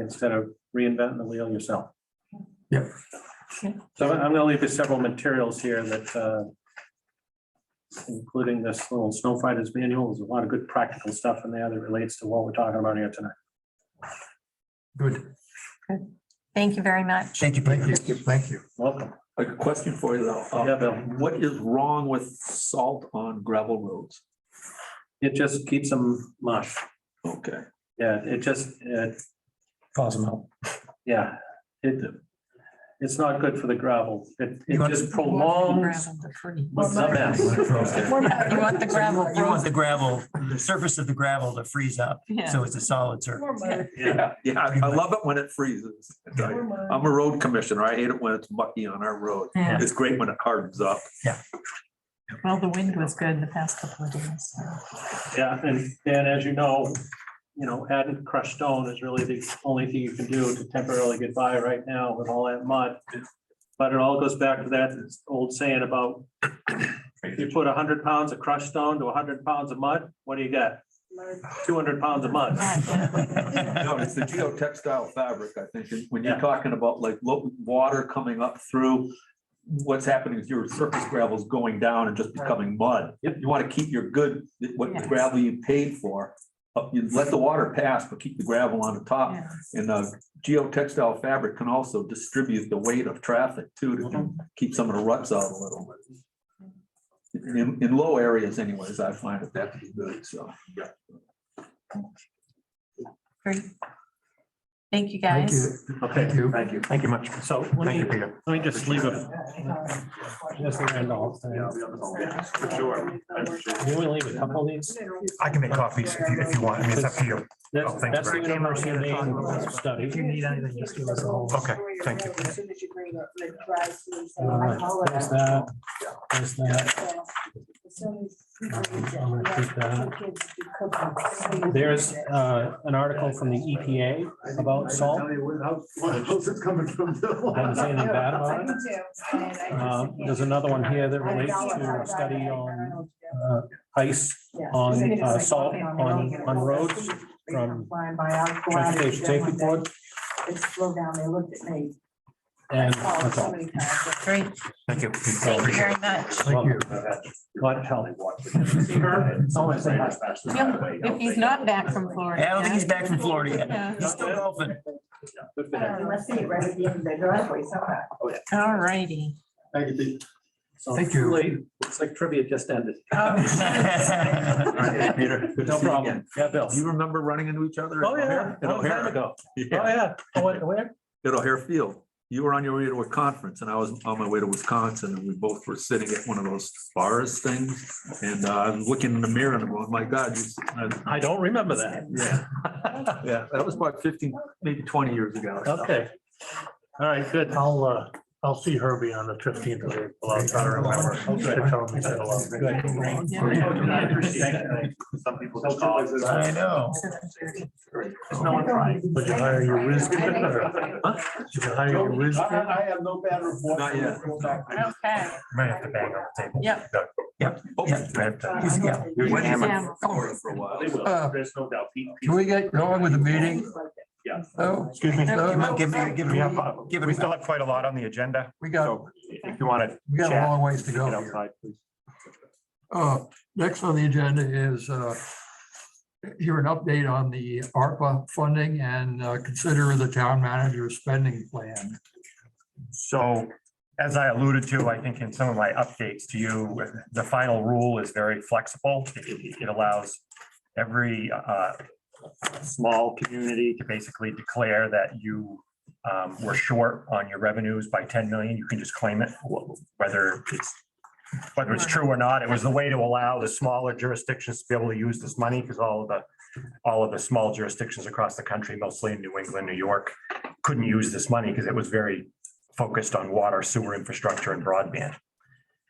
instead of reinventing the wheel yourself. Yep. So I'm gonna leave you several materials here that, uh, including this little snow fighters manual, there's a lot of good practical stuff in there that relates to what we're talking about here tonight. Good. Thank you very much. Thank you. Thank you. Thank you. Welcome. A question for you though. Uh, Oh, Yeah, Bill. What is wrong with salt on gravel roads? It just keeps them mush. Okay, Yeah, it just, it Cosmo. Yeah, it, it's not good for the gravel. It, You it want- just prolongs Well, the mess. You You want the gravel want the gravel, the surface of the gravel to freeze up, Yeah. so it's a solid surface. Yeah, yeah, yeah, I- I love it when it freezes. I tell you. I'm a road commissioner. I hate it when it's mucky on our road. Yeah. It's great when it hardens up. Well, the wind was good the past couple of days. yeah, and, and as you know, you know, adding crushed stone is really the only thing you can do to temporarily get by right now with all that mud. But it all goes back to that old saying about if you put hundred pounds of crushed stone to hundred pounds of mud, what do you get? Two hundred pounds of mud. No, it's the geotextile fabric, I think. And when Yeah. you're talking about like lo- water coming up through, what's happening is your surface gravel is going down and just becoming mud. Yep. You want to keep your good, what Yes. gravel you paid for, uh, you let the water pass, but keep the gravel on the top. Yeah. And uh geotextile fabric can also distribute the weight of traffic too, to keep some of the ruts out a little. bit. In, in low areas anyways, I find that that to be good, so. Great. Thank you, Thank guys. you. Okay, Thank you. thank you. Thank you much. So let Thank me, you, Peter. let me just leave a. just leave it all. sure. Can we leave a couple of these? I can make copies if you, if you want. I mean, it's up to you. That's, Oh, thank you that's the very much. University of Maine study. need anything, just give us a call. Okay, thank you. Uh, There's that. There's that. I'm gonna keep that. There's uh, an article from the EPA about salt. I haven't seen anything bad about it. Uh, There's another one here that relates to a study on uh, ice on uh, salt on, on roads from Transportation Safety Board. Slow down, they looked at me. And Oh, that's so all. many times. Great. Thank you. Thank you very much. Thank you. God help. It's always a nice- If he's not back from Florida. I don't think he's back from Florida Yeah. yet. He's still golfing. Good for Uh, him. You must see it right at the end of the driveway uh, somehow. All righty. So Thank you. really, It's like trivia just ended. Peter. No problem. Yeah, Bill. Do you remember running into each other? Oh, yeah. At Long time O'Hare. ago. Yeah. Oh, yeah. Oh, wait, Where? at O'Hare Field. You were on your way to a conference and I was on my way to Wisconsin and we both were sitting at one of those bars things. And uh, I'm looking in the mirror and I'm going, my God. you- I- I don't remember that. Yeah, yeah, that was about fifteen, maybe twenty years ago. Okay. All right, good. I'll, uh, I'll see Herbie on the fifteenth of April. I'll try to remember. She'll tell me that a lot. Good. Yeah. Some people just call. I know. There's no one trying. Would you hire your risk? I think so. You can hire your risk. have no bad report. Not yet. Okay. Might have to bang on the table. Yep. Oh, Uh, Yeah. When Hammer. hammer for a while. Uh, There's no doubt. Pete- Pete- Can we get going with the meeting? Yeah. Oh, Excuse me. oh, no, give me, give me, give We me. still have quite a lot on the agenda. We got, If you want to we got a Chat. long ways to go get here. outside, please. Uh, next on the agenda is, uh, hear an update on the ARPA funding and uh, consider the town manager's spending plan. So as I alluded to, I think in some of my updates to you, the final rule is very flexible. It it allows every uh, small community to basically declare that you um, were short on your revenues by 10 million. You can just claim it, wh- whether it's whether it's true or not. It was the way to allow the smaller jurisdictions to be able to use this money because all of the all of the small jurisdictions across the country, mostly in New England, New York, couldn't use this money because it was very focused on water, sewer infrastructure and broadband.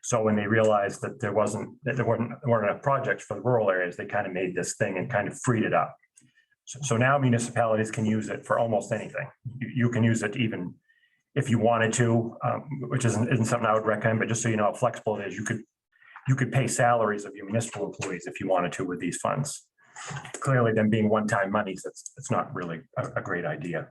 So when they realized that there wasn't, that there weren't, there weren't enough projects for the rural areas, they kind of made this thing and kind of freed it up. So, so now municipalities can use it for almost anything. You, you can use it even if you wanted to, um, which isn't, isn't something I would recommend, but just so you know how flexible it is, you could, you could pay salaries of your municipal employees if you wanted to with these funds. Clearly, them being one-time monies, that's, that's not really a, a great idea.